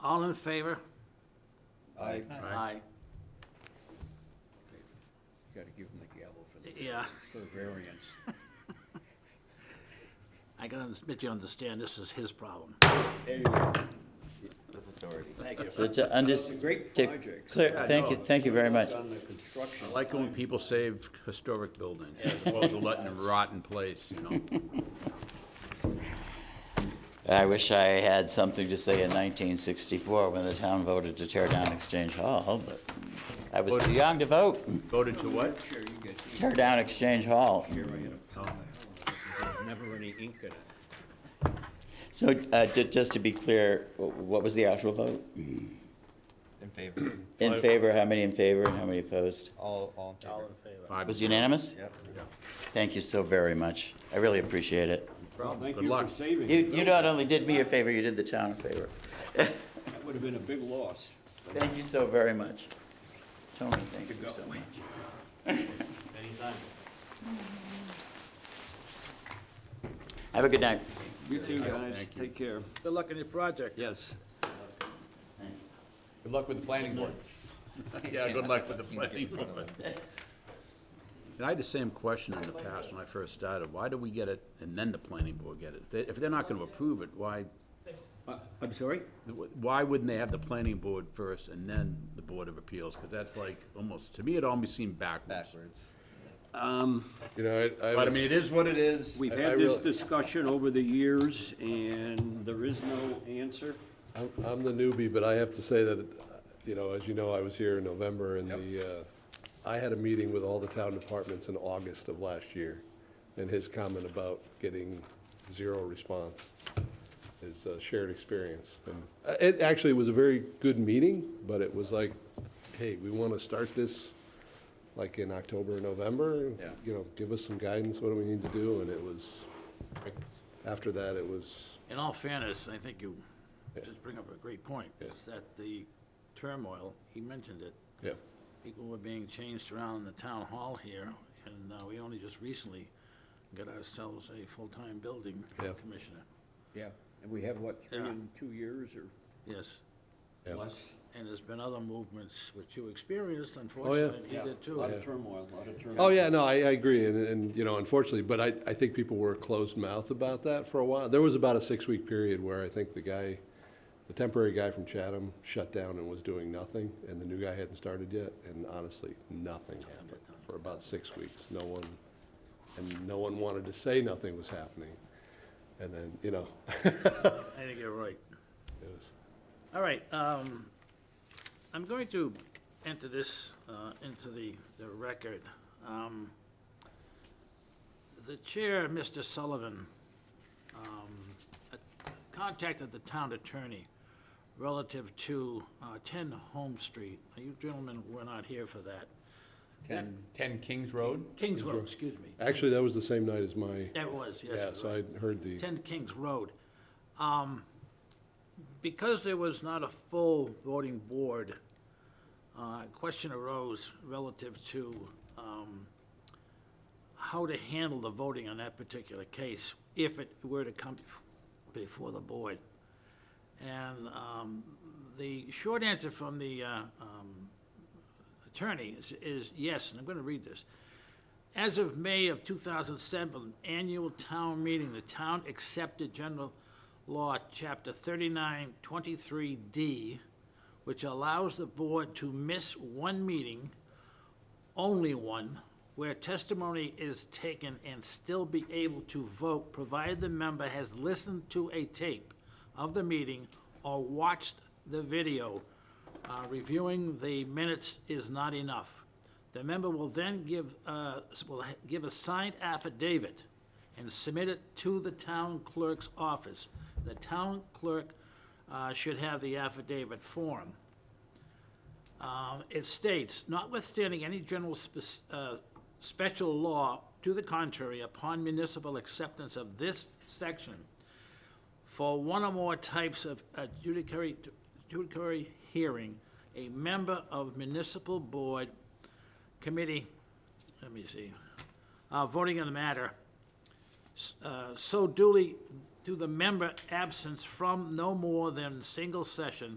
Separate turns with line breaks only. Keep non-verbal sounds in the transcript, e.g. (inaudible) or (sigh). All in favor?
I
Aye.
Gotta give him the gavel for the,
Yeah,
for the variance.
I can unders- bet you understand this is his problem.
There you go.
With authority.
Thank you.
So to under,
It's a great
to
project.
clear, thank you, thank you very much.
On the construction.
I like it when people save historic buildings as opposed to letting them rot in place, you know?
I wish I had something to say in 1964 when the town voted to tear down Exchange Hall, but I was too young to vote.
Voted to what?
Sure, you get these.
Tear down Exchange Hall.
There's never any ink in it.
So uh, ju- just to be clear, wh- what was the actual vote?
In favor.
In favor, how many in favor and how many opposed?
All, all in favor.
It was unanimous?
Yep.
Thank you so very much. I really appreciate it.
Well, thank
Good
you for
luck.
saving.
You,
it.
you not only did me a favor, you did the town a favor.
That would have been a big loss.
Thank you so very much. Tony, thank you so much. Have a good night.
You too, guys. Take care.
Good luck on your project.
Yes.
Good luck with the planning board. (laughs) Yeah, good luck with the planning board. And I had the same question in the past when I first started. Why do we get it and then the planning board get it? If they- If they're not gonna approve it, why,
Uh, I'm sorry?
why wouldn't they have the planning board first and then the Board of Appeals? Because that's like, almost, to me, it almost seemed backwards.
You know, I, I
But I
was-
mean, it is what it is.
We've
I- I
had this
really-
discussion over the years, and there is no answer.
I'm, I'm the newbie, but I have to say that, you know, as you know, I was here in November and the, uh, I had a meeting with all the town departments in August of last year. And his comment about getting zero response is a shared experience. And uh, It actually was a very good meeting, but it was like, hey, we want to start this like in October, or November.
Yeah.
You know, give us some guidance, what do we need to do? And it was, after that, it was
In all fairness, I think you just bring up a great point, is that the turmoil, he mentioned it,
Yeah,
people were being changed around in the town hall here, and uh, we only just recently got ourselves a full-time building
Yeah.
commissioner.
Yeah. And we have, what, three
Yeah.
in two years or
Yes,
yeah.
less?
and there's been other movements which you experienced, unfortunately, and he did
A
too.
lot of turmoil, a lot of turmoil.
Oh, yeah, no, I, I agree, and, and, you know, unfortunately, but I, I think people were closed mouth about that for a while. There was about a six-week period where I think the guy, the temporary guy from Chatham shut down and was doing nothing, and the new guy hadn't started yet, and honestly, nothing happened for about six weeks. No one, and no one wanted to say nothing was happening. And then, you know, (laughs)
I think you're right.
it was,
All right, um, I'm going to enter this, uh, into the, the record. Um, The chair, Mr. Sullivan, um, uh, contacted the town attorney relative to, uh, ten Home Street. Now, You gentlemen were not here for that.
Ten, ten Kings Road?
Kings Road, excuse me.
actually, that was the same night as my,
That was, yes.
yeah,
it was.
so I heard the,
10 Kings Road. Um, Because there was not a full voting board, uh, a question arose relative to um, how to handle the voting on that particular case if it were to come before the board. And um, the short answer from the uh, um, attorney is- is yes, and I'm going to read this. As of May of 2007, annual town meeting, the town accepted general law, chapter 3923D, which allows the board to miss one meeting, only one, where testimony is taken and still be able to vote, provided the member has listened to a tape of the meeting or watched the video. Uh, Reviewing the minutes is not enough. The member will then give, uh, will ha- give a signed affidavit and submit it to the town clerk's office. The town clerk uh, should have the affidavit form. Um, It states, notwithstanding any general spec- uh, special law to the contrary, upon municipal acceptance of this section, for one or more types of adjudicatory, adjudicatory hearing, a member of municipal board committee, let me see, uh, voting on the matter, s- uh, so duly to the member absence from no more than single session